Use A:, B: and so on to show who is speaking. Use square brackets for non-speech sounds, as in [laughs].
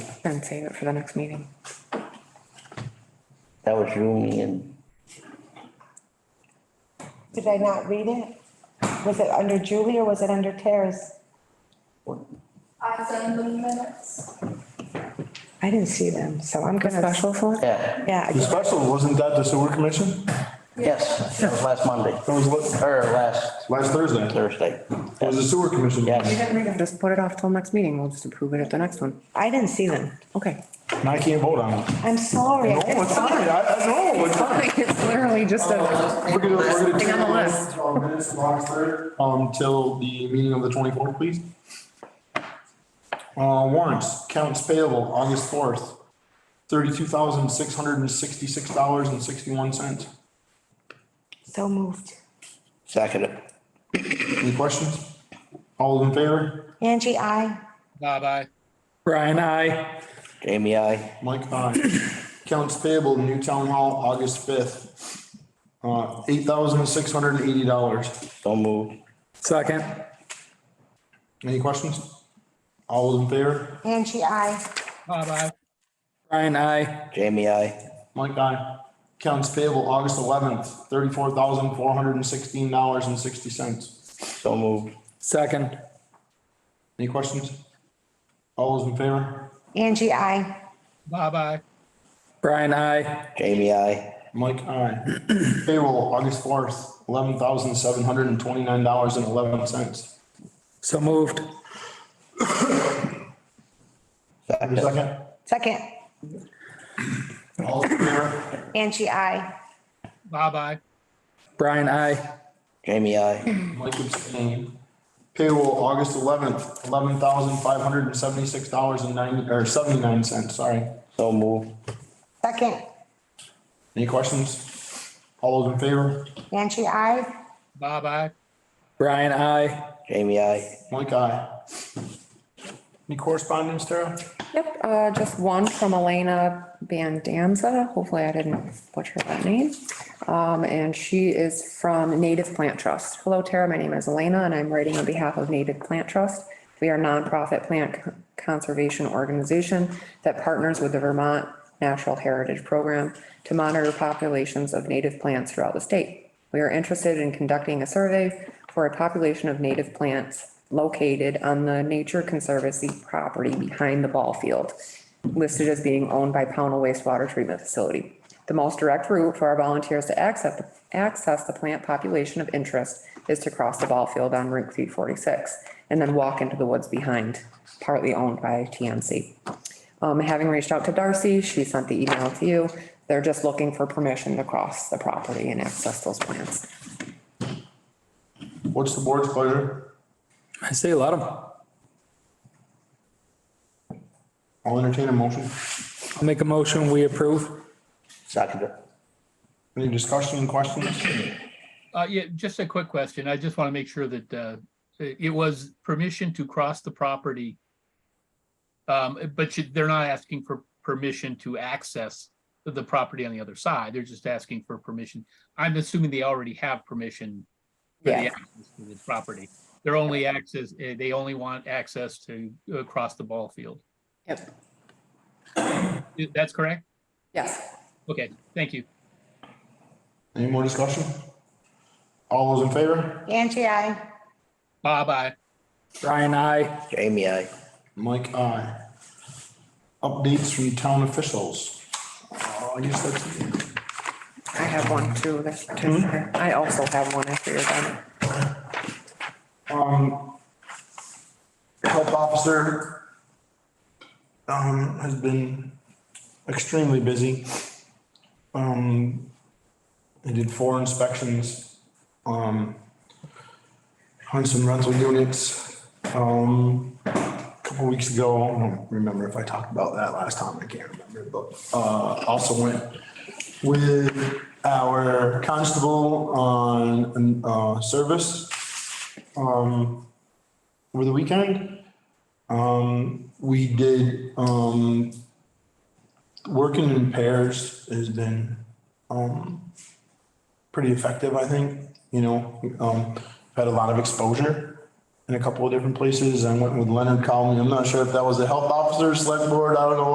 A: and save it for the next meeting.
B: That was you, me and,
C: Did I not read it? Was it under Julie or was it under Tara's?
D: I send them minutes.
C: I didn't see them, so I'm gonna.
A: Special select,
B: yeah,
C: Yeah, I
E: The
C: guess-
E: special, wasn't that the sewer commission?
B: yes, that was last Monday,
E: That was la-
B: or last
E: last Thursday.
B: Thursday.
E: It was the sewer commission.
A: you
B: Yes,
A: didn't read them, just put it off till next meeting, we'll just approve it at the next one,
C: I didn't see them.
A: okay. [laughs]
E: And I can't vote on it.
C: I'm sorry. I
E: No,
C: didn't-
E: it's fine. I, I know, it's fine.
A: It's literally just a,
E: We're gonna, we're gonna.
A: Thing on the list.
E: Uh, Minutes from August third, um, till the meeting of the twenty-fourth, please. Uh, warrants, counts payable, August fourth, thirty-two thousand, six hundred and sixty-six dollars and sixty-one cents.
C: So moved.
B: second it.
E: Any questions? All in favor?
C: Angie, I,
F: Not I.
G: Brian, I.
B: Jamie, I,
E: Mike, [coughs] aye. Counts payable, New Town Hall, August fifth, uh, eight thousand, six hundred and eighty dollars.
B: so moved.
G: Second.
E: Any questions? All in favor?
C: Angie, I,
F: Not I.
G: Brian, I.
B: Jamie, I,
E: Mike, aye. Accounts payable, August eleventh, thirty-four thousand, four hundred and sixteen dollars and sixty cents.
B: so moved.
G: Second.
E: Any questions? All those in favor?
C: Angie, I,
F: Not I.
G: Brian, I.
B: Jamie, I,
E: Mike, aye. Payroll, August fourth, eleven thousand, seven hundred and twenty-nine dollars and eleven cents.
G: So moved.
B: second.
E: Second,
C: second,
E: all those in favor?
C: Angie, I,
F: Not I.
G: Brian, I.
B: Jamie, I,
E: Mike abstained. Payroll, August eleventh, eleven thousand, five hundred and seventy-six dollars and ninety, or seventy-nine cents, sorry.
B: so moved.
C: second,
E: Any questions? All those in favor?
C: Angie, I,
F: Not I.
G: Brian, I.
B: Jamie, I,
E: Mike, aye. Any correspondence, Tara?
A: yep, uh, just one from Elena Bandanza, hopefully I didn't butcher that name. Um, and she is from Native Plant Trust. Hello Tara, my name is Elena and I'm writing on behalf of Native Plant Trust. We are a nonprofit plant c- conservation organization that partners with the Vermont Natural Heritage Program to monitor populations of native plants throughout the state. We are interested in conducting a survey for a population of native plants located on the Nature Conservancy property behind the ball field, listed as being owned by Pownell Wastewater Treatment Facility. The most direct route for our volunteers to access, access the plant population of interest is to cross the ball field on Route three forty-six and then walk into the woods behind, partly owned by TNC. Um, having reached out to Darcy, she sent the email to you. They're just looking for permission to cross the property and access those plants.
E: What's the board's pleasure?
G: I say let him.
E: I'll entertain a motion.
G: I'll make a motion, we approve.
B: second it.
E: Any discussion, questions?
F: Uh, yeah, just a quick question. I just want to make sure that, uh, it it was permission to cross the property. Um, but you- they're not asking for permission to access the property on the other side. They're just asking for permission. I'm assuming they already have permission for the
A: Yeah.
F: access to the property. They're only access, eh, they only want access to uh, cross the ball field.
A: Yep.
F: Eh, That's correct?
A: Yes.
F: Okay, thank you.
E: Any more discussion? All those in favor?
C: Angie, I,
F: Bye-bye.
G: Brian, I.
B: Jamie, I,
E: Mike, aye. Updates from town officials. Uh, I guess that's,
A: I have one too. that's- I also have one after you're done.
E: um, health officer um, has been extremely busy. Um, he did four inspections, um, on some rental units, um, a couple weeks ago. I don't remember if I talked about that last time. I can't remember, but, uh, also went with our constable on, uh, service, um, over the weekend. Um, we did, um, working in pairs has been, um, pretty effective, I think, you know, um, had a lot of exposure in a couple of different places. I went with Leonard Calmey. I'm not sure if that was the health officer, select board, I don't know